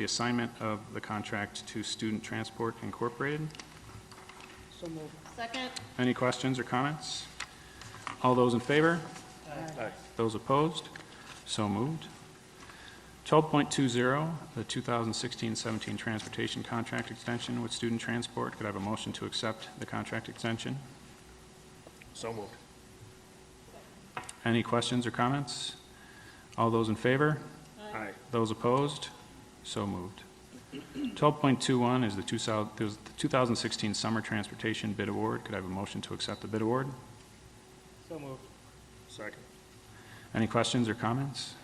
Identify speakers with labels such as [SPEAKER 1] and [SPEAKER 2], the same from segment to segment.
[SPEAKER 1] the assignment of the contract to Student Transport Incorporated.
[SPEAKER 2] So moved.
[SPEAKER 3] Second,
[SPEAKER 1] Any questions or comments? All those in favor? Aye. Those opposed? So moved. 12.20, the 2016-17 Transportation Contract Extension with Student Transport. Could I have a motion to accept the contract extension?
[SPEAKER 4] So moved.
[SPEAKER 1] Any questions or comments? All those in favor?
[SPEAKER 4] Aye.
[SPEAKER 1] Those opposed? So moved. 12.21 is the 2000 is the 2016 Summer Transportation Bid Award. Could I have a motion to accept the bid award?
[SPEAKER 2] So moved.
[SPEAKER 4] Second.
[SPEAKER 1] Any questions or comments?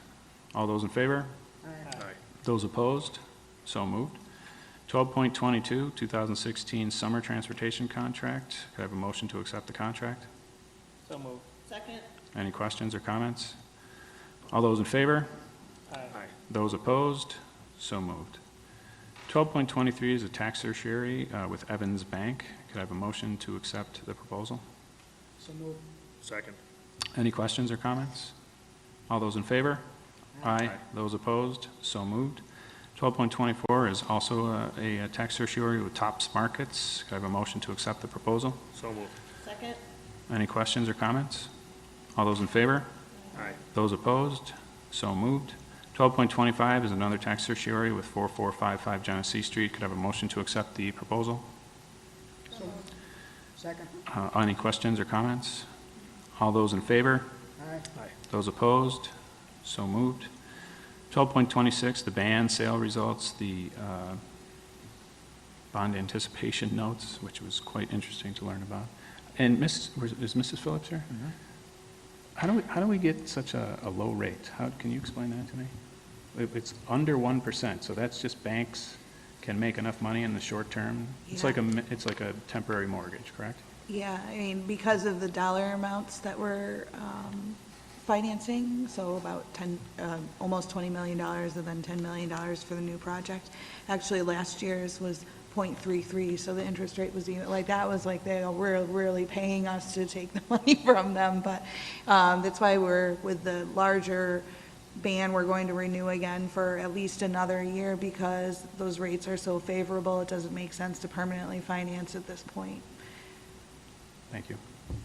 [SPEAKER 1] All those in favor?
[SPEAKER 4] Aye.
[SPEAKER 1] Those opposed? So moved. 12.22, 2016 Summer Transportation Contract. Could I have a motion to accept the contract?
[SPEAKER 2] So moved.
[SPEAKER 3] second,
[SPEAKER 1] Any questions or comments? All those in favor?
[SPEAKER 4] Aye.
[SPEAKER 1] Those opposed? So moved. 12.23 is a tax certiorari uh, with Evans Bank. Could I have a motion to accept the proposal?
[SPEAKER 2] So moved.
[SPEAKER 4] Second.
[SPEAKER 1] Any questions or comments? All those in favor? Aye. Those opposed? So moved. 12.24 is also uh, a a tax certiorari with Tops Markets. Could I have a motion to accept the proposal?
[SPEAKER 4] So moved.
[SPEAKER 3] second,
[SPEAKER 1] Any questions or comments? All those in favor?
[SPEAKER 4] Aye.
[SPEAKER 1] Those opposed? So moved. 12.25 is another tax certiorari with 4455 Genesee Street. Could I have a motion to accept the proposal?
[SPEAKER 2] Second.
[SPEAKER 1] Uh, Any questions or comments? All those in favor?
[SPEAKER 2] Aye.
[SPEAKER 1] Those opposed? So moved. 12.26, the ban sale results, the uh, bond anticipation notes, which was quite interesting to learn about. And Miss, was- is Mrs. Phillips here? How do we, how do we get such a, a low rate? How, can you explain that to me? It- It's under 1%, so that's just banks can make enough money in the short term. It's like a, mi- it's like a temporary mortgage, correct?
[SPEAKER 5] Yeah, I mean, because of the dollar amounts that we're um, financing, so about 10, um, almost $20 million and then $10 million for the new project. Actually, last year's was .33, so the interest rate was even, like, that was like, they were really paying us to take the money from them, but um, that's why we're, with the larger ban, we're going to renew again for at least another year because those rates are so favorable, it doesn't make sense to permanently finance at this point.
[SPEAKER 1] Thank you.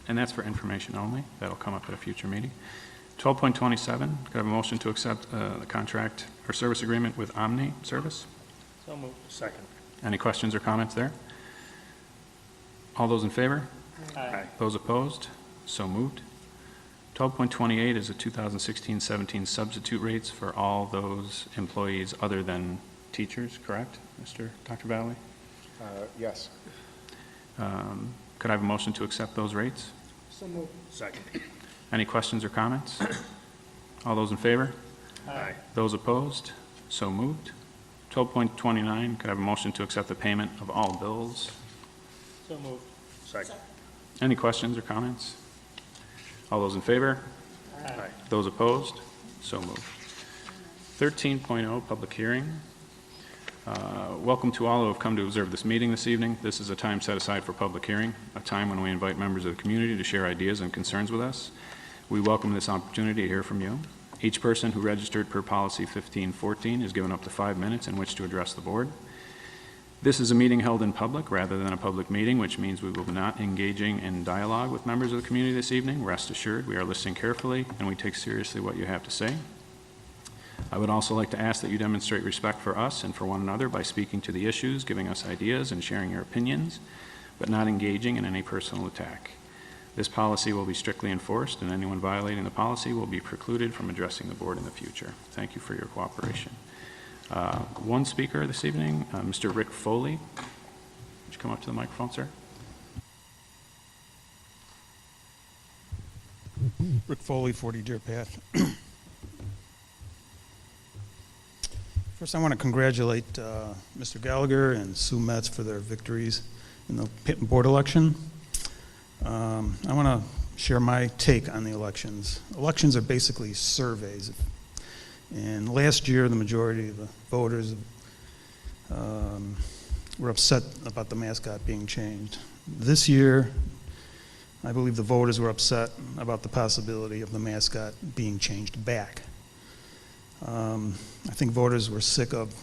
[SPEAKER 1] And that's for information only. That'll come up at a future meeting. 12.27, could I have a motion to accept uh, the contract or service agreement with Omni Service?
[SPEAKER 2] So moved.
[SPEAKER 4] Second.
[SPEAKER 1] Any questions or comments there? All those in favor?
[SPEAKER 4] Aye.
[SPEAKER 1] Those opposed? So moved. 12.28 is the 2016-17 substitute rates for all those employees other than teachers, correct, Mr. Dr. Valley?
[SPEAKER 6] Uh, Yes,
[SPEAKER 1] Um, Could I have a motion to accept those rates?
[SPEAKER 2] So moved.
[SPEAKER 4] Second.
[SPEAKER 1] Any questions or comments? All those in favor?
[SPEAKER 4] Aye.
[SPEAKER 1] Those opposed? So moved. 12.29, could I have a motion to accept the payment of all bills?
[SPEAKER 2] So moved.
[SPEAKER 4] Second.
[SPEAKER 1] Any questions or comments? All those in favor?
[SPEAKER 4] Aye.
[SPEAKER 1] Those opposed? So moved. 13.0, public hearing. Uh, Welcome to all who have come to observe this meeting this evening. This is a time set aside for public hearing, a time when we invite members of the community to share ideas and concerns with us. We welcome this opportunity to hear from you. Each person who registered per policy 1514 is given up to five minutes in which to address the board. This is a meeting held in public rather than a public meeting, which means we will be not engaging in dialogue with members of the community this evening. Rest assured, we are listening carefully, and we take seriously what you have to say. I would also like to ask that you demonstrate respect for us and for one another by speaking to the issues, giving us ideas, and sharing your opinions, but not engaging in any personal attack. This policy will be strictly enforced, and anyone violating the policy will be precluded from addressing the board in the future. Thank you for your cooperation. Uh, One speaker this evening, uh, Mr. Rick Foley. Would you come up to the microphone, sir?
[SPEAKER 7] Rick Foley, 40 Deer Path. First, I want to congratulate uh, Mr. Gallagher and Sue Metz for their victories in the Pitt Board election. Um, I want to share my take on the elections. Elections are basically surveys. And last year, the majority of the voters um, were upset about the mascot being changed. This year, I believe the voters were upset about the possibility of the mascot being changed back. Um, I think voters were sick of